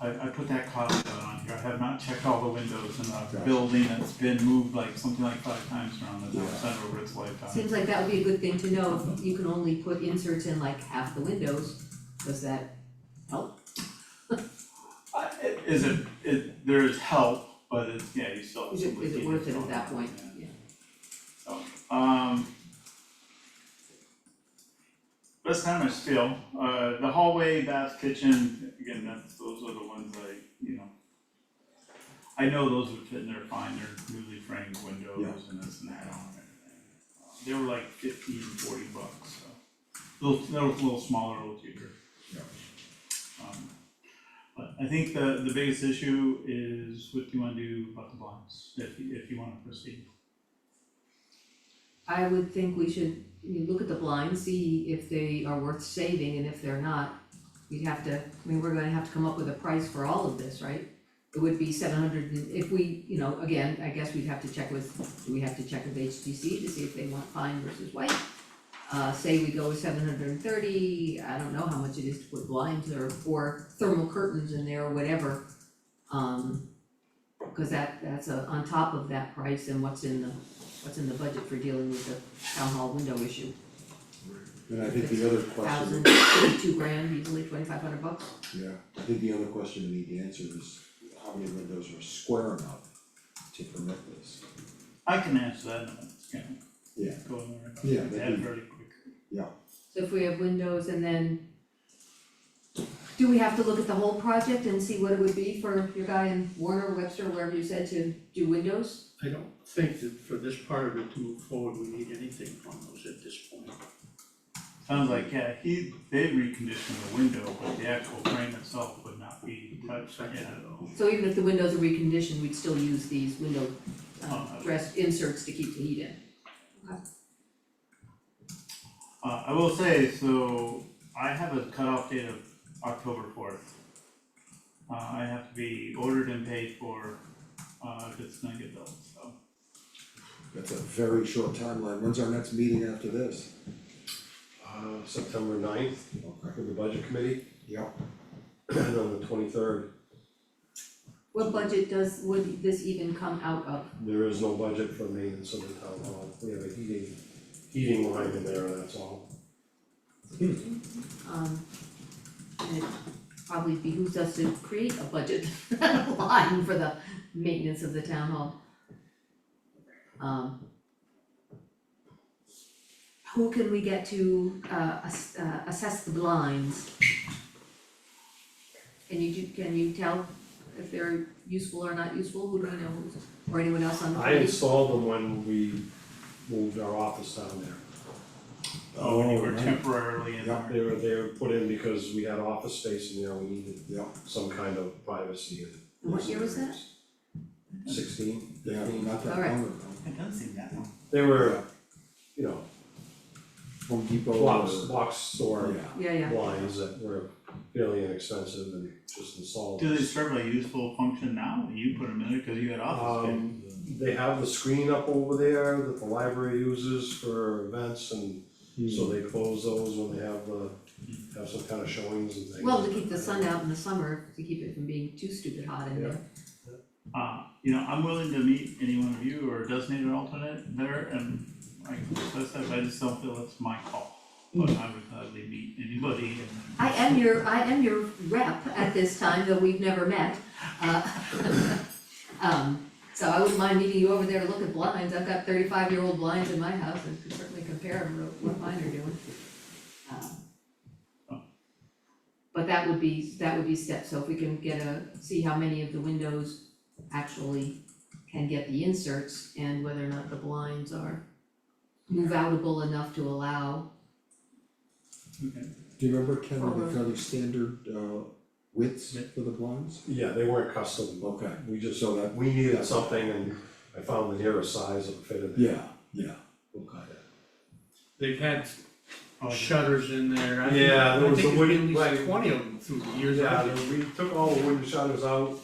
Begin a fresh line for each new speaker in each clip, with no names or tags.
I, I put that cost out on here, I have not checked all the windows in a
Gotcha.
building that's been moved like, something like five times around the town
Yeah.
center over its lifetime.
Seems like that would be a good thing to know, if you can only put inserts in like half the windows, does that help?
I- it- Is it, it, there is help, but it's, yeah, you still have
Is
some
it, is it
leaking
worth it
going
at that
on,
point?
yeah.
Yeah.
Um. Best time I feel, uh, the hallway, bath, kitchen, again, that's, those are the ones I, you know. I know those would fit in there fine, they're newly framed windows and this and that on and everything. Uh, They were like fifteen, forty bucks, so. Little, they were a little smaller, a little cheaper.
Yeah.
Um, But I think the, the biggest issue is what do you wanna do about the blinds, if, you- if you wanna proceed.
I would think we should, you look at the blinds, see if they are worth saving, and if they're not, we'd have to, I mean, we're gonna have to come up with a price for all of this, right? It would be seven hundred, and if we, you know, again, I guess we'd have to check with, do we have to check with HTC to see if they want fine versus white? Uh, say we go with seven hundred and thirty, I don't know how much it is to put blinds or, or thermal curtains in there or whatever. Um, cause that, that's a, on top of that price and what's in the what's in the budget for dealing with the town hall window issue?
And I think the other question,
Thousand, two grand, easily twenty-five hundred bucks?
yeah, I think the other question we need to answer is how many windows are square enough to permit this?
I can answer that, in a minute, it's gonna
Yeah.
go in there.
Yeah,
It's
that'd be-
very quickly.
So if we have windows and then do we have to look at the whole project and see what it would be for your guy in Warner, Webster, wherever you said to do windows?
I don't think that for this part of it to move forward, we need anything from those at this point.
Sounds like, yeah, he, they reconditioned the window, but the actual frame itself would not be touched,
Second
yeah.
at all.
So even if the windows are reconditioned, we'd still use these window uh
Uh-huh.
dress inserts to keep the heat in.
Uh, I will say, so I have a cutoff date of October fourth. Uh, I have to be ordered and paid for, uh, if it's gonna get built, so.
That's a very short timeline, when's our next meeting after this?
Uh, September ninth
Okay.
for the budget committee,
Yeah,
and on the twenty-third,
What budget does, would this even come out of?
there is no budget for maintenance of the town hall. We have a heating, heating line in there, that's all.
Um, and it probably behooves us to create a budget line for the maintenance of the town hall. Um. Who can we get to, uh, ass- uh, assess the blinds? Can you, do- can you tell if they're useful or not useful, who do we know, who's- or anyone else on the
I
committee?
installed them when we moved our office down there.
Oh, when you
Oh,
were
right.
temporarily in
Yeah.
there.
They were, they were put in because we had office space in there, we needed
yeah,
some kind of privacy and.
And What year was that?
Sixteen,
yeah,
fifteen,
not that
All right.
long ago,
It does seem that long.
they were, you know,
Home Depot uh, or.
box, box store
Yeah,
Yeah, yeah,
blinds that were fairly inexpensive and just installed.
Do they serve a useful function now? You put them in there, cause you had office space.
Um, they have the screen up over there that the library uses for events and
Hmm.
so they close those when they have the, have some kind of showings and things.
well, to keep the sun out in the summer, to keep it from being too stupid hot in there.
Uh, you know, I'm willing to meet any one of you or designate an alternate there and I can discuss that, but I just don't feel it's my call. But I would gladly meet anybody and.
I am your, I am your rep at this time, though we've never met. Uh, Um, so I wouldn't mind meeting you over there to look at blinds, I've got thirty-five year old blinds in my house and can certainly compare them to what mine are doing. Um, But that would be, that would be steps, so if we can get a, see how many of the windows actually can get the inserts and whether or not the blinds are move outable enough to allow,
Okay,
do you remember Ken,
Or-
the kind of standard uh widths
Yeah.
for the blinds?
Yeah, they weren't custom,
Okay,
we just, so that, we needed something and I found the nearest size that fitted there.
yeah, yeah, okay.
They've had
Oh, yeah.
shutters in there, I think,
Yeah, there
I
was
think
a wooden-
there's been at
like-
least twenty of them through the years.
Yeah,
I've
they- we took all the wooden shutters out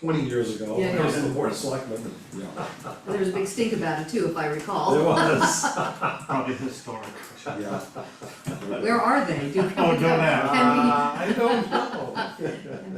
twenty years ago,
Yeah,
that was
yeah.
the board of selectmen,
Yeah,
there was a big stink about it too, if I recall.
there was.
Probably historic.
yeah.
Where are they? Do,
Oh, don't ask.
Can we-
Uh, I don't know.